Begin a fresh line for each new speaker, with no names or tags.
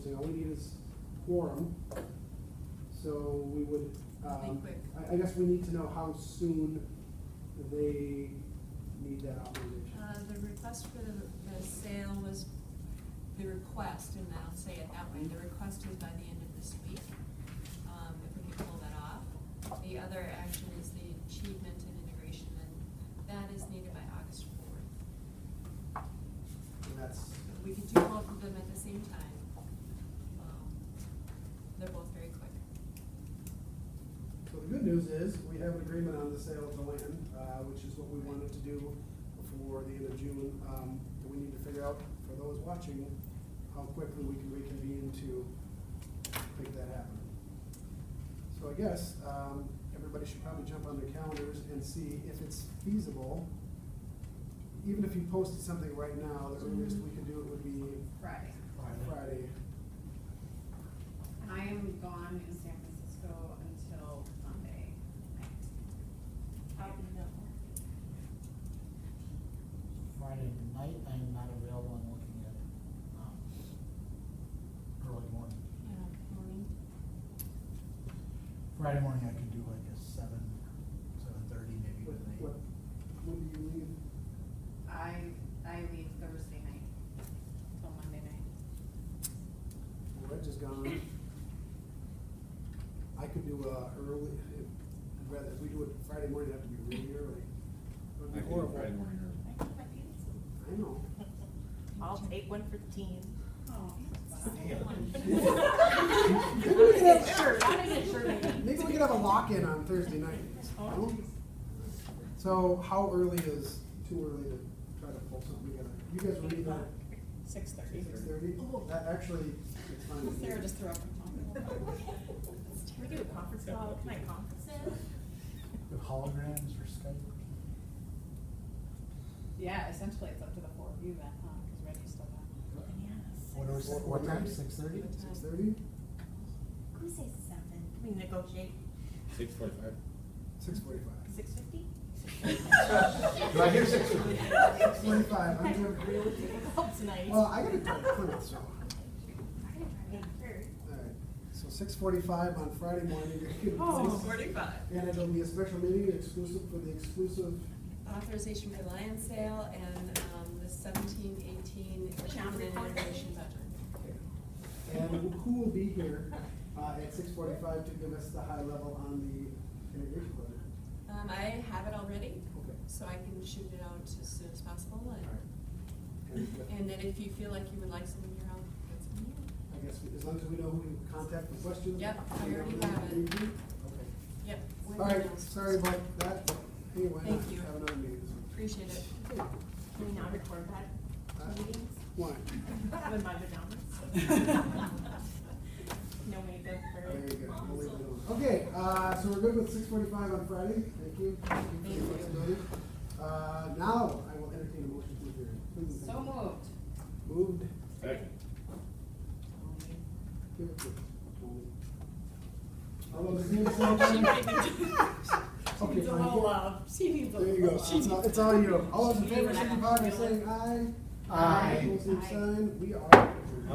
all we need is quorum. So we would, um,
quick.
I, I guess we need to know how soon they need that authorization.
Uh, the request for the, the sale was, the request, and I'll say it that way, the request is by the end of this week, um, if we can pull that off. The other action is the achievement and integration, and that is needed by August fourth.
And that's,
We could do both of them at the same time. Um, They're both very quick.
so the good news is, we have an agreement on the sale of the land, uh, which is what we wanted to do before the end of June. Um, but we need to figure out, for those watching, how quickly we can reconvene to make that happen. So I guess, um, everybody should probably jump on their calendars and see if it's feasible. Even if you posted something right now, the earliest we could do it would be
Friday.
Friday.
I am gone in San Francisco until Monday night.
Friday night, I'm not available, I'm looking at, um, early morning.
Yeah, morning.
Friday morning, I could do like a seven, seven thirty, maybe
What,
with an
what,
eight.
when do you leave?
I, I leave Thursday night till Monday night.
Well, Reg is gone. I could do a early, if, I'd rather, if we do it Friday morning, it'd have to be really early. It would
I
be
can do
horrible.
Friday morning early.
I know.
I'll take one for the team.
Oh.
Maybe we could have a lock-in on Thursday night. no? So how early is, too early to try to pull something together? You guys were leaving at
Six thirty.
six thirty? Oh, That actually, it's fine. with me.
Sarah just threw up her phone.
Can we do a conference call? Can I conference
The holograms or Skype?
Yeah, essentially it's up to the four of you then, huh, cause Reggie's still gone.
What
Yes.
was, what time, six thirty?
Six thirty?
Can we say seven? Can we negotiate
Six forty-five.
Six forty-five.
six fifty?
Do I hear six forty?
Six forty-five, I'm doing.
Oh, tonight.
Well, I gotta go to Plymouth, so.
I gotta drive down first.
Alright, so six forty-five on Friday morning. you can-
Oh,
forty-five.
And it'll be a special meeting exclusive for the exclusive,
Authorization for land sale and, um, the seventeen, eighteen,
John,
achievement and
report.
integration budget.
and who will be here, uh, at six forty-five to give us the high level on the integration plan?
Um, I have it already,
Okay.
so I can shoot it out as soon as possible,
Alright.
and,
And with-
and then if you feel like you would like some of your own, that's on you.
I guess, we- as long as we know who to contact for questions.
Yep, I
we know
already
who to
have it.
meet with. Okay.
Yep. when
Alright,
announced.
sorry about that, anyway,
Thank you.
have another meeting this week.
Appreciate it.
Can we not record
Uh,
that meetings?
One,
With my pajamas? No makeup for.
there you go, We'll leave it alone. Okay, uh, so we're good with six forty-five on Friday, thank you. Thank you for your flexibility. Uh, now, I will entertain a motion to adjourn. Please, thank
So
you.
moved.
Moved.
Second.
Give it to Tony. All those in favor? Okay,
Needs a
fine.
little love. She needs a
There
little
you go.
love.
It's all, it's all you. All those in
She
favor,
needs
signify by
that.
saying aye.
Aye.
Opposed, same
Aye.
sign. We are.